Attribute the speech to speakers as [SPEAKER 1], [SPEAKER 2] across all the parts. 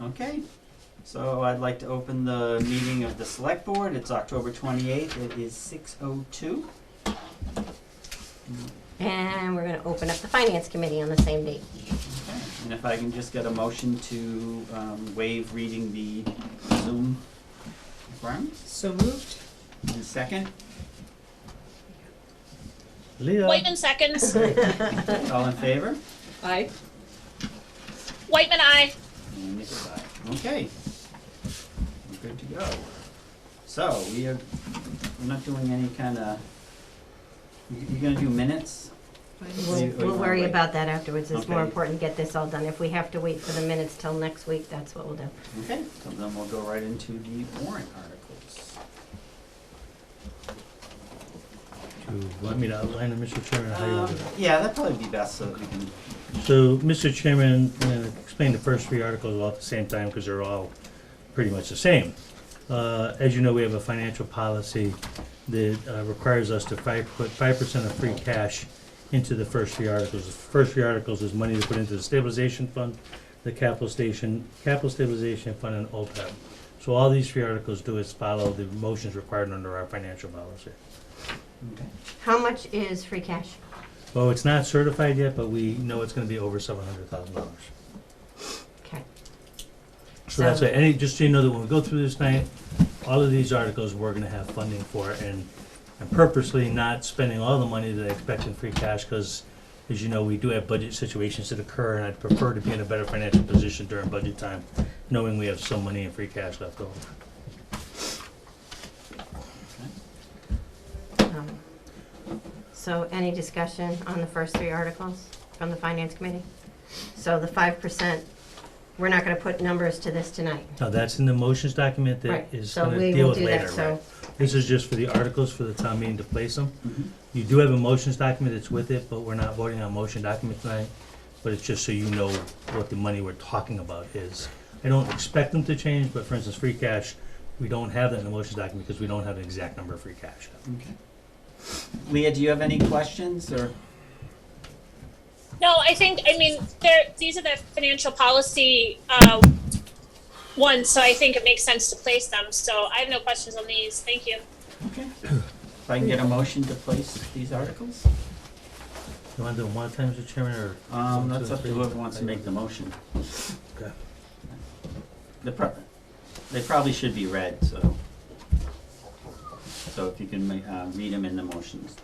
[SPEAKER 1] Okay, so I'd like to open the meeting of the select board. It's October twenty-eighth. It is six oh two.
[SPEAKER 2] And we're gonna open up the finance committee on the same date.
[SPEAKER 1] Okay, and if I can just get a motion to um, waive reading the Zoom requirements?
[SPEAKER 3] So moved.
[SPEAKER 1] And a second,
[SPEAKER 4] Wait in seconds.
[SPEAKER 1] all in favor?
[SPEAKER 3] Aye.
[SPEAKER 4] Whiteman, I.
[SPEAKER 1] And Nick's aye. Okay. We're good to go. So, we are, we're not doing any kind of, you gonna do minutes?
[SPEAKER 3] Finance.
[SPEAKER 2] We'll,
[SPEAKER 1] you- or you
[SPEAKER 2] we'll
[SPEAKER 1] wanna
[SPEAKER 2] worry
[SPEAKER 1] wait?
[SPEAKER 2] about that afterwards. It's more
[SPEAKER 1] Okay.
[SPEAKER 2] important to get this all done. If we have to wait for the minutes till next week, that's what we'll do.
[SPEAKER 1] Okay, so then we'll go right into the warrant articles.
[SPEAKER 5] You want me to outline it, Mr. Chairman, or how you want to do
[SPEAKER 1] Um, Yeah, that'd probably be best so that we can,
[SPEAKER 5] it? So, Mr. Chairman, I'm gonna explain the first three articles all at the same time, because they're all pretty much the same. Uh, as you know, we have a financial policy that uh, requires us to five, put five percent of free cash into the first three articles. The first three articles is money to put into the stabilization fund, the capital station, capital stabilization fund, and OPEB. So all these three articles do is follow the motions required under our financial policy.
[SPEAKER 1] okay.
[SPEAKER 2] How much is free cash?
[SPEAKER 5] Oh, it's not certified yet, but we know it's gonna be over seven hundred thousand dollars.
[SPEAKER 2] Okay.
[SPEAKER 5] So that's
[SPEAKER 2] So-
[SPEAKER 5] it, any, just so you know that when we go through this night, all of these articles, we're gonna have funding for, and I'm purposely not spending all the money that I expect in free cash, cause as you know, we do have budget situations that occur, and I'd prefer to be in a better financial position during budget time, knowing we have some money in free cash left over.
[SPEAKER 2] Um, So any discussion on the first three articles from the finance committee? So the five percent, we're not gonna put numbers to this tonight.
[SPEAKER 5] Now, that's in the motions document
[SPEAKER 2] Right,
[SPEAKER 5] that is
[SPEAKER 2] so
[SPEAKER 5] gonna
[SPEAKER 2] we
[SPEAKER 5] deal
[SPEAKER 2] will
[SPEAKER 5] with
[SPEAKER 2] do
[SPEAKER 5] later,
[SPEAKER 2] that,
[SPEAKER 5] right?
[SPEAKER 2] so,
[SPEAKER 5] This is just for the articles for the town meeting to place them.
[SPEAKER 1] Mhm.
[SPEAKER 5] You do have a motions document that's with it, but we're not voting on motion document tonight. But it's just so you know what the money we're talking about is. I don't expect them to change, but for instance, free cash, we don't have that in the motions document because we don't have an exact number of free cash.
[SPEAKER 1] Okay. Leah, do you have any questions or?
[SPEAKER 4] No, I think, I mean, there, these are the financial policy, uh, ones, so I think it makes sense to place them, so I have no questions on these, thank you.
[SPEAKER 1] Okay. If I can get a motion to place these articles?
[SPEAKER 5] You wanna do them one at a time, Mr. Chairman, or?
[SPEAKER 1] Um, that's up to whoever wants to make the motion.
[SPEAKER 5] Okay.
[SPEAKER 1] The pro- they probably should be read, so. So if you can ma- uh, read them in the motions.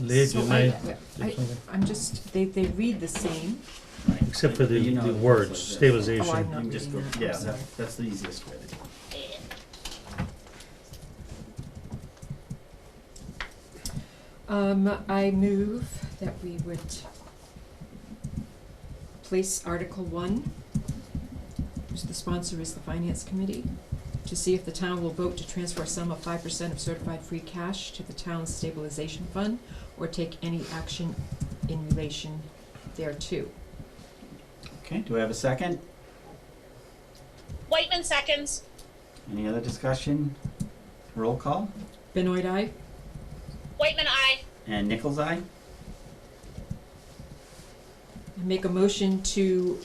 [SPEAKER 5] Leah, do
[SPEAKER 3] So
[SPEAKER 5] you
[SPEAKER 3] I-
[SPEAKER 5] mind?
[SPEAKER 3] I- I'm just, they, they read the same.
[SPEAKER 1] Right.
[SPEAKER 5] Except for
[SPEAKER 1] You
[SPEAKER 5] the,
[SPEAKER 1] know
[SPEAKER 5] the
[SPEAKER 1] it goes
[SPEAKER 5] words,
[SPEAKER 1] like this.
[SPEAKER 5] stabilization.
[SPEAKER 3] Oh, I know.
[SPEAKER 1] You can just go-
[SPEAKER 3] Not reading that,
[SPEAKER 1] yeah,
[SPEAKER 3] I'm
[SPEAKER 1] that-
[SPEAKER 3] sorry.
[SPEAKER 1] that's the easiest way to do it.
[SPEAKER 3] Um, I move that we would place Article One, which the sponsor is the Finance Committee, to see if the town will vote to transfer a sum of five percent of certified free cash to the town's stabilization fund or take any action in relation thereto.
[SPEAKER 1] Okay, do I have a second?
[SPEAKER 4] Whiteman seconds.
[SPEAKER 1] Any other discussion? Roll call?
[SPEAKER 3] Benoit, aye?
[SPEAKER 4] Whiteman, I.
[SPEAKER 1] And Nichols' eye?
[SPEAKER 3] I Make a motion to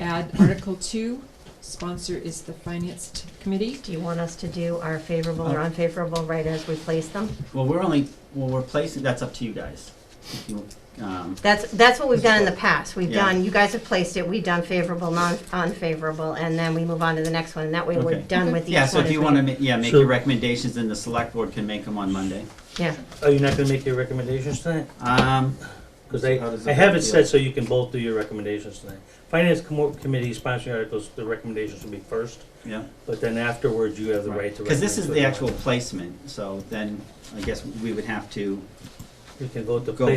[SPEAKER 3] add Article Two, sponsor is the Finance t- Committee.
[SPEAKER 2] do you want us to do our favorable or unfavorable right as we place them?
[SPEAKER 1] Well, we're only, well, we're placing, that's up to you guys. If you, um,
[SPEAKER 2] That's, that's what we've done in the past. We've
[SPEAKER 1] Yeah.
[SPEAKER 2] done, you guys have placed it, we've done favorable, non, unfavorable, and then we move on to the next one, and that way we're
[SPEAKER 1] Okay.
[SPEAKER 2] done with each one.
[SPEAKER 1] yeah, so if
[SPEAKER 2] as
[SPEAKER 1] you
[SPEAKER 2] we-
[SPEAKER 1] wanna, ma- yeah, make
[SPEAKER 5] So-
[SPEAKER 1] your recommendations, then the select board can make them on Monday.
[SPEAKER 2] Yeah,
[SPEAKER 5] Are you not gonna make your recommendations tonight?
[SPEAKER 1] Um,
[SPEAKER 5] Because
[SPEAKER 1] So
[SPEAKER 5] I,
[SPEAKER 1] how does
[SPEAKER 5] I
[SPEAKER 1] it
[SPEAKER 5] have
[SPEAKER 1] feel?
[SPEAKER 5] it set so you can both do your recommendations tonight. Finance com- committee sponsoring articles, the recommendations will be first,
[SPEAKER 1] yeah.
[SPEAKER 5] but then afterwards you have the right to.
[SPEAKER 1] Because this
[SPEAKER 5] recommend
[SPEAKER 1] is
[SPEAKER 5] to
[SPEAKER 1] the
[SPEAKER 5] anyone.
[SPEAKER 1] actual placement, so then I guess we would have to
[SPEAKER 5] You can vote to
[SPEAKER 1] go
[SPEAKER 5] place